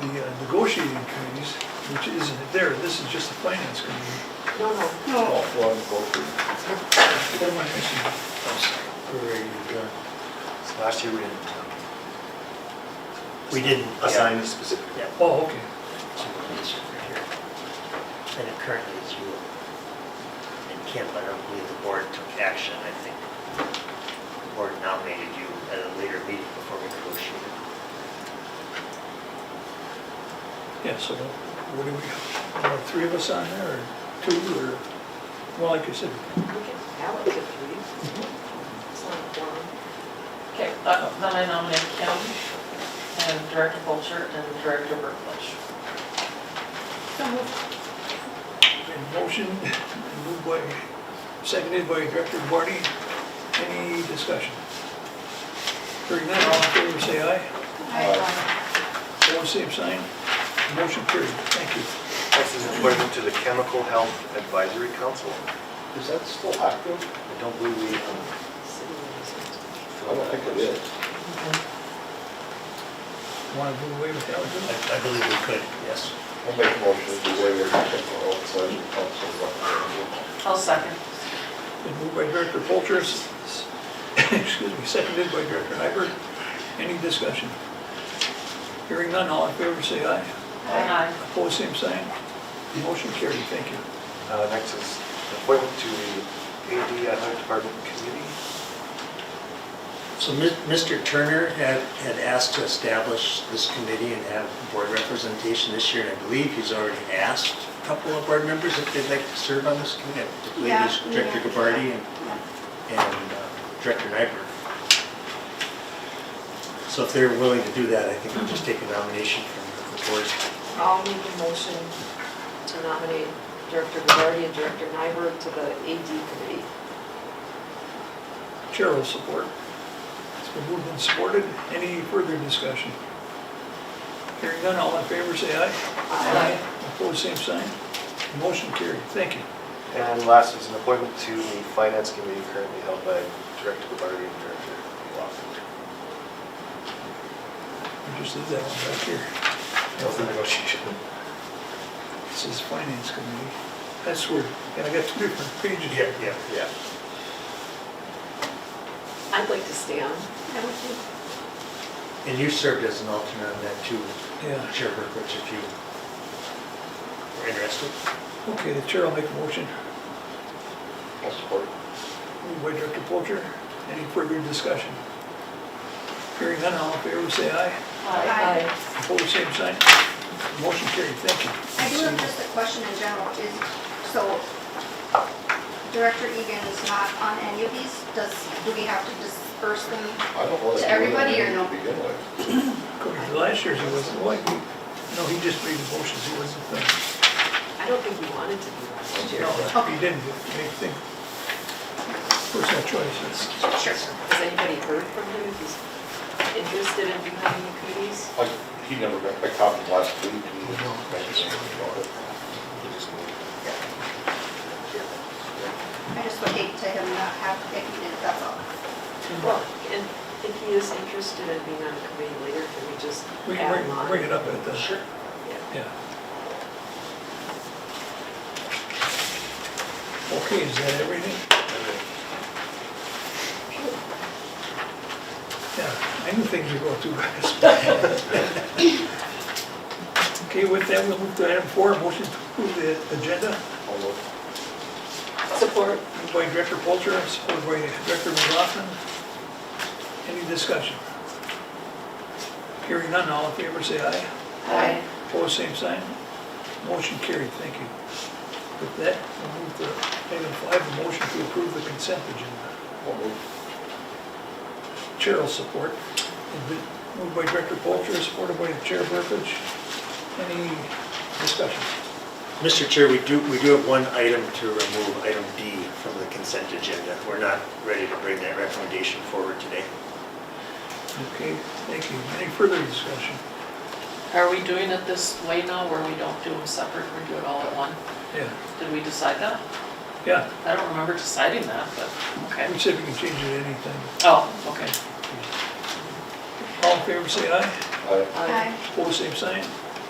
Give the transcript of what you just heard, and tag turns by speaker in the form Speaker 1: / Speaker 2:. Speaker 1: uh, negotiating committees, which isn't there, this is just the finance committee.
Speaker 2: No, no.
Speaker 3: All four of them go through.
Speaker 1: What am I Oh, missing?
Speaker 4: So Last year we didn't. um, We didn't assign a specific.
Speaker 5: Yeah,
Speaker 1: Oh, okay.
Speaker 5: two police over here. And it currently is you and Kim, but I don't believe the board took action, I think. The board nominated you at a later meeting before we negotiated.
Speaker 1: Yeah, so what do we, got? Are three of us on there, or two, or, well, like I said,
Speaker 2: We can allocate three. It's not a quorum.
Speaker 6: Okay, uh, then I nominate Kim and Director Polcher and Director Berklich.
Speaker 1: in motion, moved by, seconded by Director Barty, any discussion? Hearing none, all in favor, say aye. All same sign, motion carried, thank you.
Speaker 4: Next is appointment to the Chemical Health Advisory Council.
Speaker 3: Is that still active?
Speaker 4: I don't believe we, um,
Speaker 2: City residents.
Speaker 3: I don't think it is.
Speaker 1: Want to do away with that, would you?
Speaker 5: I believe we could, yes.
Speaker 3: I'll make a motion to waive the technical advisory council recommendation.
Speaker 6: I'll second.
Speaker 1: Been moved by Director Polter, s- s- excuse me, seconded by Director Hyberg. Any discussion? Hearing none, all in favor, say aye.
Speaker 6: Aye.
Speaker 1: Opposed, same sign. Motion carried, thank you.
Speaker 4: uh, next is appointment to the AD Athletic Department Committee.
Speaker 5: So Mi- Mr. Turner had, had asked to establish this committee and have board representation this year, and I believe he's already asked a couple of board members if they'd like to serve on this committee, particularly
Speaker 7: Yeah,
Speaker 5: this Director
Speaker 7: yeah.
Speaker 5: Gabarty and
Speaker 7: Yeah.
Speaker 5: and uh, Director Nyberg. So if they're willing to do that, I think we'll just take a nomination from the board.
Speaker 2: I'll make a motion to nominate Director Gubarty and Director Nyberg to the AD committee.
Speaker 1: Chair will support. It's been moved and supported. Any further discussion? Hearing none, all in favor, say aye.
Speaker 2: Aye.
Speaker 1: Opposed, same sign. Motion carried, thank you.
Speaker 4: And last is an appointment to the Finance Committee currently held by Director Barty and Director Lofton.
Speaker 1: We just did that one back here.
Speaker 4: Health and negotiation.
Speaker 1: This is Finance Committee. That's weird. And I got two different pages. here.
Speaker 4: yeah, yeah.
Speaker 2: I'd like to stay on.
Speaker 7: I would think
Speaker 5: And you served as an alternate on that too,
Speaker 1: Yeah.
Speaker 5: Chair Berkowitz, if you were interested.
Speaker 1: Okay, the chair will make a motion.
Speaker 3: I'll support it.
Speaker 1: Moved by Director Polter. Any further discussion? Hearing none, all in favor, say aye.
Speaker 7: Aye.
Speaker 1: Opposed, same sign. Motion carried, thank you.
Speaker 7: I do have just a question in general, is, so Director Egan is not on any of these, does, do we have to disperse them?
Speaker 3: I don't want
Speaker 7: To
Speaker 3: to.
Speaker 7: everybody or no?
Speaker 3: Begin with.
Speaker 1: According to last year's, he wasn't like, no, he just made the motions, he wasn't thinking.
Speaker 2: I don't think we wanted to be last year.
Speaker 1: No, he didn't, he made think. Personal choice, it's,
Speaker 7: Sure.
Speaker 2: Has anybody heard from him if he's interested in becoming the committees?
Speaker 3: Like, he never got, I caught him last week. and he
Speaker 5: No.
Speaker 3: mentioned something about it. He just moved.
Speaker 7: I just would hate to him not have, if he did, that's all.
Speaker 2: Well, and if he is interested in being on the committee later, can we just
Speaker 1: we can
Speaker 2: add him
Speaker 1: bring,
Speaker 2: on?
Speaker 1: bring it up at the,
Speaker 2: Sure. Yeah.
Speaker 1: yeah. Okay, is that everything? Yeah, I knew things would go too fast. Okay, with that, we'll move to item four, motion to approve the agenda.
Speaker 3: I'll look.
Speaker 2: Support.
Speaker 1: Moved by Director Polter, supported by Director McLaughlin. Any discussion? Hearing none, all in favor, say aye.
Speaker 2: Aye.
Speaker 1: Opposed, same sign. Motion carried, thank you. With that, we'll move to item five, a motion to approve the consent agenda.
Speaker 3: I'll move.
Speaker 1: Chair will support. Moved by Director Polter, supported by Chair Burbidge. Any discussion?
Speaker 5: Mr. Chair, we do, we do have one item to remove, item D, from the consent agenda. We're not ready to bring that recommendation forward today.
Speaker 1: Okay, thank you. Any further discussion?
Speaker 6: Are we doing it this way now where we don't do them separate, we do it all at one?
Speaker 1: Yeah,
Speaker 6: Did we decide that?
Speaker 1: yeah.
Speaker 6: I don't remember deciding that, but, okay.
Speaker 1: We said we can change it at any time.
Speaker 6: Oh, okay.
Speaker 1: All in favor, say aye.
Speaker 3: I-
Speaker 7: Aye.
Speaker 1: Opposed, same sign.